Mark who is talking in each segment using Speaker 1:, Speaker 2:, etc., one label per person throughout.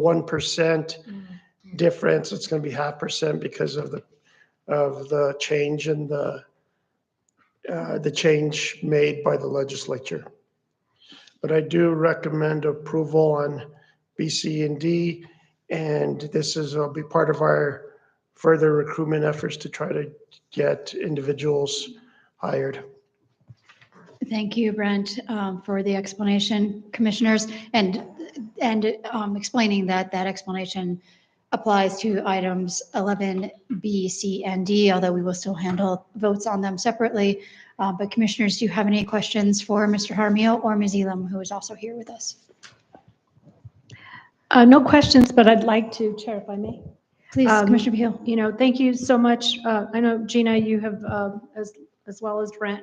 Speaker 1: one percent difference, it's gonna be half percent because of the, of the change in the, uh, the change made by the legislature. But I do recommend approval on B, C, and D. And this is, will be part of our further recruitment efforts to try to get individuals hired.
Speaker 2: Thank you, Brent, um, for the explanation, commissioners, and, and um, explaining that that explanation applies to items 11B, C, and D, although we will still handle votes on them separately. Uh, But commissioners, do you have any questions for Mr. Jaramillo or Ms. Elam, who is also here with us?
Speaker 3: Uh, No questions, but I'd like to, Chair, if I may.
Speaker 2: Please,
Speaker 3: Um,
Speaker 2: Commissioner Beal.
Speaker 3: You know, thank you so much. Uh, I know Gina, you have, uh, as as well as Brent,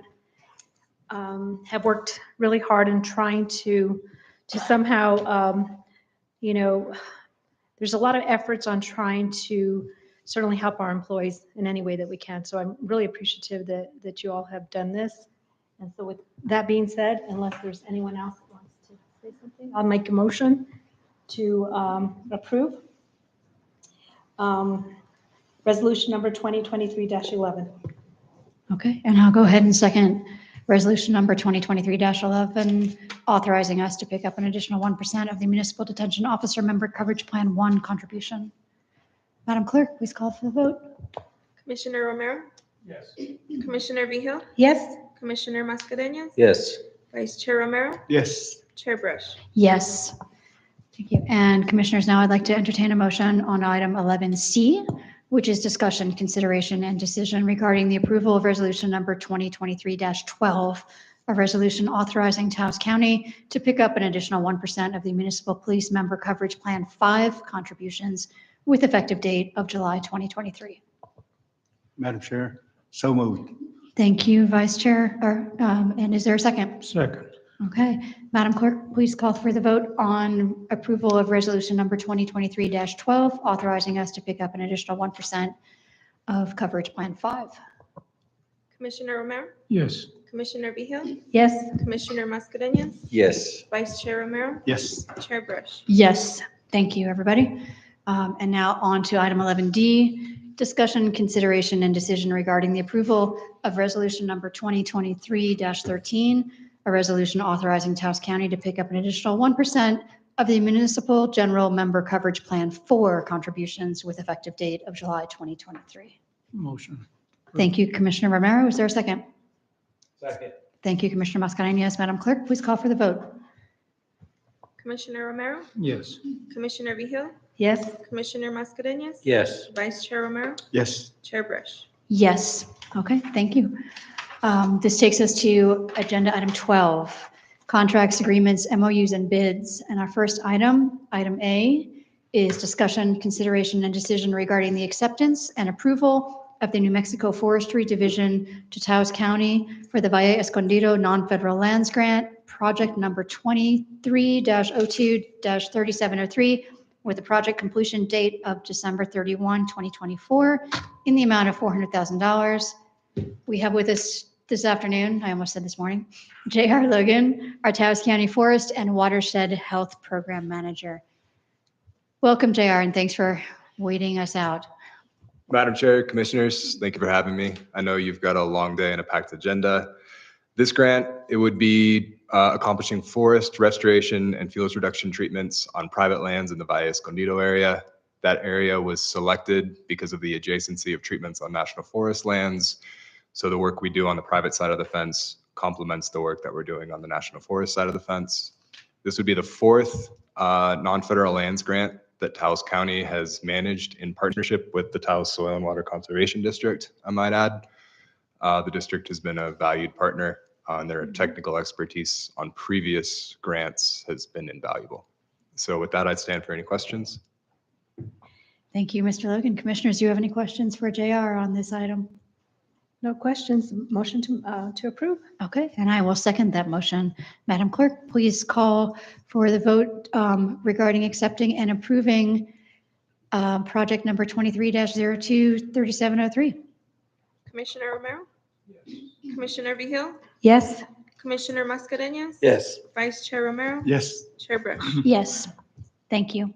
Speaker 3: um, have worked really hard in trying to, to somehow, um, you know, there's a lot of efforts on trying to certainly help our employees in any way that we can. So I'm really appreciative that, that you all have done this. And so with that being said, unless there's anyone else that wants to say something, I'll make a motion to um, approve. Um, Resolution number 2023-11.
Speaker 2: Okay, and I'll go ahead and second resolution number 2023-11, authorizing us to pick up an additional 1% of the municipal detention officer member coverage plan one contribution. Madam Clerk, please call for the vote.
Speaker 4: Commissioner Romero? Yes. Commissioner Vehil?
Speaker 3: Yes?
Speaker 4: Commissioner Mascareñas?
Speaker 5: Yes.
Speaker 4: Vice Chair Romero?
Speaker 6: Yes.
Speaker 4: Chair Brush?
Speaker 2: Yes. Thank you. And Commissioners, now I'd like to entertain a motion on item 11C, which is discussion, consideration, and decision regarding the approval of resolution number 2023-12, a resolution authorizing Taos County to pick up an additional 1% of the municipal police member coverage plan five contributions with effective date of July 2023.
Speaker 6: Madam Chair, so moved.
Speaker 2: Thank you, Vice Chair, or, um, and is there a second?
Speaker 1: Second.
Speaker 2: Okay, Madam Clerk, please call for the vote on approval of resolution number 2023-12, authorizing us to pick up an additional 1% of coverage plan five.
Speaker 4: Commissioner Romero?
Speaker 1: Yes.
Speaker 4: Commissioner Vehil?
Speaker 3: Yes.
Speaker 4: Commissioner Mascareñas?
Speaker 5: Yes.
Speaker 4: Vice Chair Romero?
Speaker 6: Yes.
Speaker 4: Chair Brush?
Speaker 2: Yes, thank you, everybody. Um, And now on to item 11D, discussion, consideration, and decision regarding the approval of resolution number 2023-13, a resolution authorizing Taos County to pick up an additional 1% of the municipal general member coverage plan for contributions with effective date of July 2023.
Speaker 6: Motion.
Speaker 2: Thank you, Commissioner Romero. Is there a second?
Speaker 5: Second.
Speaker 2: Thank you, Commissioner Mascherinius. Madam Clerk, please call for the vote.
Speaker 4: Commissioner Romero?
Speaker 6: Yes.
Speaker 4: Commissioner Vehil?
Speaker 3: Yes?
Speaker 4: Commissioner Mascareñas?
Speaker 5: Yes.
Speaker 4: Vice Chair Romero?
Speaker 6: Yes.
Speaker 4: Chair Brush?
Speaker 2: Yes. Okay, thank you. Um, This takes us to agenda item 12, contracts, agreements, MOUs, and bids. And our first item, item A, is discussion, consideration, and decision regarding the acceptance and approval of the New Mexico Forestry Division to Taos County for the Valle Escondido Non-Federal Lands Grant, project number 23-02-3703, with the project completion date of December 31, 2024, in the amount of $400,000. We have with us this afternoon, I almost said this morning, J.R. Logan, our Taos County Forest and Watershed Health Program Manager. Welcome, J.R., and thanks for waiting us out.
Speaker 7: Madam Chair, Commissioners, thank you for having me. I know you've got a long day and a packed agenda. This grant, it would be uh, accomplishing forest restoration and fuels reduction treatments on private lands in the Valle Escondido area. That area was selected because of the adjacency of treatments on national forest lands. So the work we do on the private side of the fence complements the work that we're doing on the national forest side of the fence. This would be the fourth uh, non-federal lands grant that Taos County has managed in partnership with the Taos Soil and Water Conservation District, I might add. Uh, The district has been a valued partner, uh, and their technical expertise on previous grants has been invaluable. So with that, I'd stand for any questions.
Speaker 2: Thank you, Mr. Logan. Commissioners, do you have any questions for J.R. on this item?
Speaker 3: No questions. Motion to, uh, to approve?
Speaker 2: Okay, and I will second that motion. Madam Clerk, please call for the vote um, regarding accepting and approving uh, project number 23-02-3703.
Speaker 4: Commissioner Romero? Commissioner Vehil?
Speaker 3: Yes?
Speaker 4: Commissioner Mascareñas?
Speaker 5: Yes.
Speaker 4: Vice Chair Romero?
Speaker 6: Yes.
Speaker 4: Chair Brush?
Speaker 2: Yes, thank you.